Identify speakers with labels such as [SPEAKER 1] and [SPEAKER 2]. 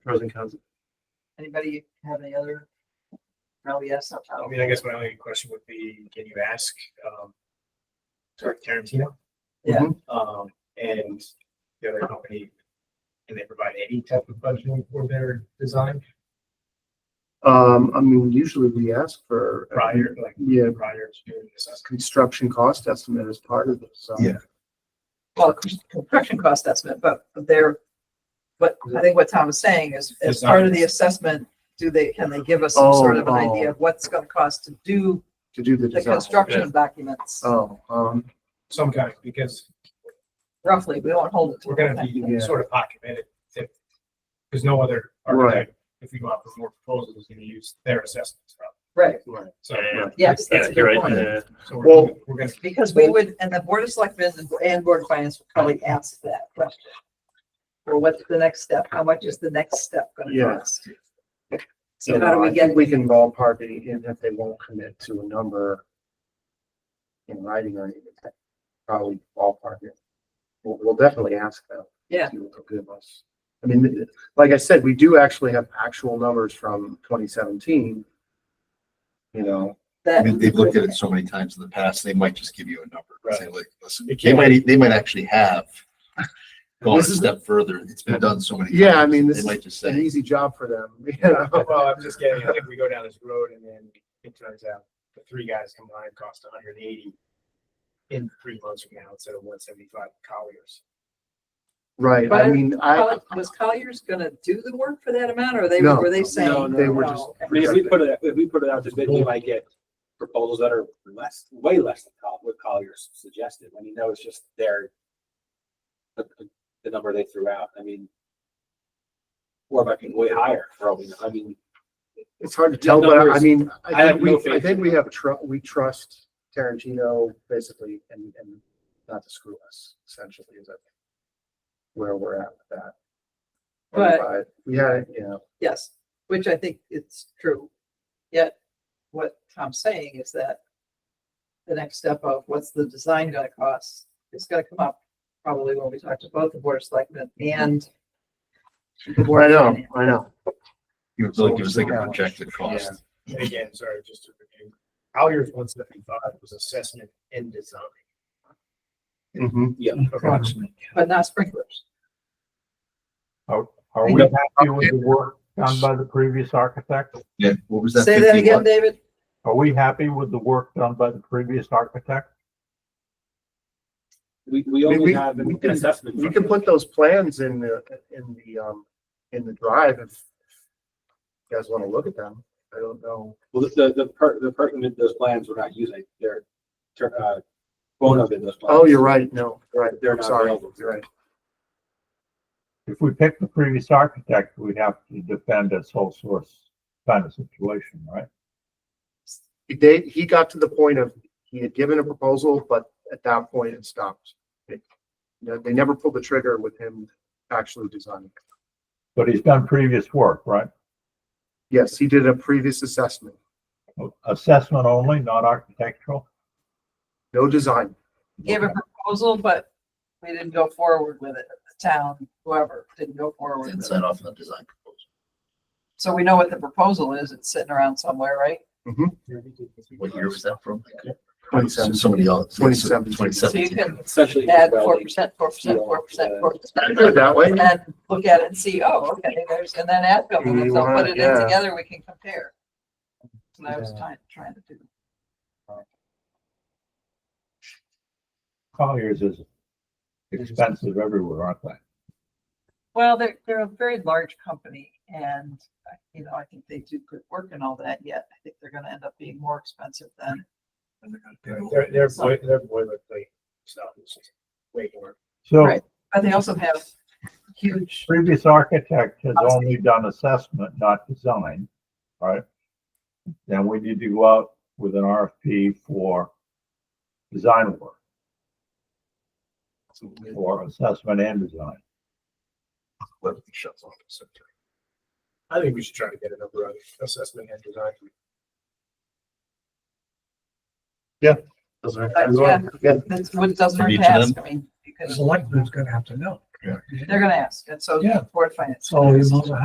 [SPEAKER 1] pros and cons.
[SPEAKER 2] Anybody have any other? No, yes, I'll
[SPEAKER 3] I
[SPEAKER 2] tell
[SPEAKER 3] mean, I guess my only question would be, can you ask, um, sorry, Tarantino?
[SPEAKER 2] Yeah.
[SPEAKER 3] Um, and the other company, can they provide any type of budgeting for their design
[SPEAKER 1] Um, I mean, usually we ask for. uh,
[SPEAKER 3] prior, like,
[SPEAKER 1] Yeah,
[SPEAKER 3] prior to doing this?
[SPEAKER 1] construction cost estimate as part of this. so.
[SPEAKER 4] Yeah.
[SPEAKER 2] well, construction cost estimate, but they're, but I think what Tom is saying is, as part of the assessment, do they, can they give us some sort of an
[SPEAKER 1] Oh, oh.
[SPEAKER 2] idea of what's gonna cost to do
[SPEAKER 1] To do the
[SPEAKER 2] the
[SPEAKER 1] design.
[SPEAKER 2] construction documents?
[SPEAKER 1] Oh, um,
[SPEAKER 3] Some kind, because
[SPEAKER 2] Roughly, we won't hold it to.
[SPEAKER 3] we're gonna be
[SPEAKER 1] Yeah.
[SPEAKER 3] sort of hot committed. if- There's no other architect, if we go out for more proposals, is gonna use their assessments. right?
[SPEAKER 2] Right,
[SPEAKER 3] So,
[SPEAKER 2] yes, that's a
[SPEAKER 5] you're
[SPEAKER 2] good
[SPEAKER 5] right,
[SPEAKER 2] point.
[SPEAKER 5] yeah.
[SPEAKER 3] so we're, we're gonna,
[SPEAKER 2] Because we would, and the Board of Selectmen and- and Board of Finance would probably ask that question. Or what's the next step? How much is the next step gonna
[SPEAKER 1] Yeah.
[SPEAKER 2] cost?
[SPEAKER 1] you
[SPEAKER 2] So how do
[SPEAKER 1] know,
[SPEAKER 2] we
[SPEAKER 1] I think
[SPEAKER 2] get,
[SPEAKER 1] we can ballpark it even if they won't commit to a number in writing or anything, probably ballpark it. We'll, we'll definitely ask them.
[SPEAKER 2] Yeah.
[SPEAKER 1] See what they'll give us. I mean, th- like I said, we do actually have actual numbers from twenty seventeen. You know,
[SPEAKER 4] I
[SPEAKER 2] that?
[SPEAKER 4] mean, they've looked at it so many times in the past, they might just give you a number. and say, like, listen,
[SPEAKER 3] It
[SPEAKER 4] They
[SPEAKER 3] can't-
[SPEAKER 4] might, they might actually have gone a
[SPEAKER 1] This is-
[SPEAKER 4] step further. It's been done so many. times.
[SPEAKER 1] Yeah, I mean, this
[SPEAKER 4] They
[SPEAKER 1] is
[SPEAKER 4] might just
[SPEAKER 1] an
[SPEAKER 4] say,
[SPEAKER 1] easy job for them, you know?
[SPEAKER 3] well, I'm just getting, I think we go down this road and then it turns out the three guys combined cost hundred and eighty in three months from now instead of one seventy-five Colliers.
[SPEAKER 1] Right, I
[SPEAKER 2] But
[SPEAKER 1] mean, I,
[SPEAKER 2] Coll- Was Colliers gonna do the work for that amount or they,
[SPEAKER 1] No,
[SPEAKER 2] were they
[SPEAKER 1] no,
[SPEAKER 2] saying?
[SPEAKER 1] they were just-
[SPEAKER 2] no,
[SPEAKER 6] I mean, if we put it, if we put it out to bid, we might get proposals that are less, way less than Col- what Collier's suggested. I mean, that was just their the, the number they threw out. I mean, or might be way higher, probably. I mean,
[SPEAKER 1] it's hard to tell, but I
[SPEAKER 6] Numbers.
[SPEAKER 1] mean,
[SPEAKER 6] I
[SPEAKER 1] I
[SPEAKER 6] have
[SPEAKER 1] think
[SPEAKER 6] no
[SPEAKER 1] we, I
[SPEAKER 6] faith
[SPEAKER 1] think
[SPEAKER 6] in
[SPEAKER 1] we have tru- we trust Tarantino basically and, and not to screw us essentially is that where we're at with that.
[SPEAKER 2] But-
[SPEAKER 1] We had, you know,
[SPEAKER 2] Yes, which I think it's true. Yet, what Tom's saying is that the next step of what's the design gonna cost, is gonna come up probably when we talk to both the Board of Selectmen and the Board
[SPEAKER 1] I
[SPEAKER 2] of
[SPEAKER 1] know,
[SPEAKER 2] Finance.
[SPEAKER 1] I know.
[SPEAKER 4] you know, like, give us like a projected cost.
[SPEAKER 3] And again, sorry, just to review, Colliers one seventy-five was assessment and design.
[SPEAKER 1] Mhm.
[SPEAKER 3] Approximately.
[SPEAKER 2] But not sprinklers.
[SPEAKER 7] Are we happy with the work done by the previous architect?
[SPEAKER 4] Yeah, what was that?
[SPEAKER 2] Say that
[SPEAKER 4] 51?
[SPEAKER 2] again, David.
[SPEAKER 7] Are we happy with the work done by the previous architect?
[SPEAKER 6] we, we
[SPEAKER 1] We- we-
[SPEAKER 6] only have
[SPEAKER 1] we
[SPEAKER 6] an an
[SPEAKER 1] can-
[SPEAKER 6] assessment.
[SPEAKER 1] We
[SPEAKER 6] from
[SPEAKER 1] can
[SPEAKER 6] them.
[SPEAKER 1] put those plans in the, in the, um, in the drive if you guys want to look at them. I don't know.
[SPEAKER 6] Well, the, the, per- the person that those plans we're not using, they're, ter- uh, phone up in those. plans.
[SPEAKER 1] Oh, you're right. No, you're right.
[SPEAKER 6] They're
[SPEAKER 1] I'm
[SPEAKER 6] not
[SPEAKER 1] sorry.
[SPEAKER 6] available.
[SPEAKER 1] You're right.
[SPEAKER 7] If we pick the previous architect, we'd have to defend a sole source kind of situation, right?
[SPEAKER 1] They, he got to the point of, he had given a proposal, but at that point it stopped. It- They, they never pulled the trigger with him actually designing.
[SPEAKER 7] But he's done previous work, right?
[SPEAKER 1] Yes, he did a previous assessment,
[SPEAKER 7] Assessment only, not architectural?
[SPEAKER 1] no design.
[SPEAKER 2] Gave a proposal, but we didn't go forward with it. The town, whoever, didn't go forward
[SPEAKER 4] And
[SPEAKER 2] with
[SPEAKER 4] sign
[SPEAKER 2] it.
[SPEAKER 4] off on the design proposal.
[SPEAKER 2] So we know what the proposal is. It's sitting around somewhere, right?
[SPEAKER 4] What year was that from?
[SPEAKER 1] Twenty-seven.
[SPEAKER 4] Somebody else.
[SPEAKER 1] 2017.
[SPEAKER 4] Twenty
[SPEAKER 2] So you
[SPEAKER 4] seventeen.
[SPEAKER 2] can
[SPEAKER 6] Essentially.
[SPEAKER 2] add
[SPEAKER 6] well,
[SPEAKER 2] four
[SPEAKER 6] they-
[SPEAKER 2] percent, four percent, four percent, four percent.
[SPEAKER 1] Put it that way.
[SPEAKER 2] And then look at it and see, oh, okay, there's, and then add them, and if they'll put it in
[SPEAKER 1] Yeah.
[SPEAKER 2] together, we can compare. And I was trying, trying to do.
[SPEAKER 7] Colliers is expensive everywhere, aren't they?
[SPEAKER 2] Well, they're, they're a very large company and, uh, you know, I think they do good work and all that, yet I think they're gonna end up being more expensive than.
[SPEAKER 3] Their, their boi- their boilerplate stuff is just way more.
[SPEAKER 7] So
[SPEAKER 2] Right. But they also have huge,
[SPEAKER 7] previous architect has only done assessment, not design, right? Then we need to go out with an RFP for design work or assessment and design.
[SPEAKER 4] Whoever shuts off. so-
[SPEAKER 3] I think we should try to get a number on assessment and design.
[SPEAKER 1] Those are-
[SPEAKER 2] but uh, yeah,
[SPEAKER 1] Yeah.
[SPEAKER 2] that's what it doesn't hurt
[SPEAKER 4] For each
[SPEAKER 2] to
[SPEAKER 4] of
[SPEAKER 2] ask,
[SPEAKER 4] them?
[SPEAKER 2] I mean, because
[SPEAKER 8] Selectmen's gonna have to know.
[SPEAKER 2] they're gonna ask, and so
[SPEAKER 7] Yeah.
[SPEAKER 2] board finance.
[SPEAKER 8] So you might as well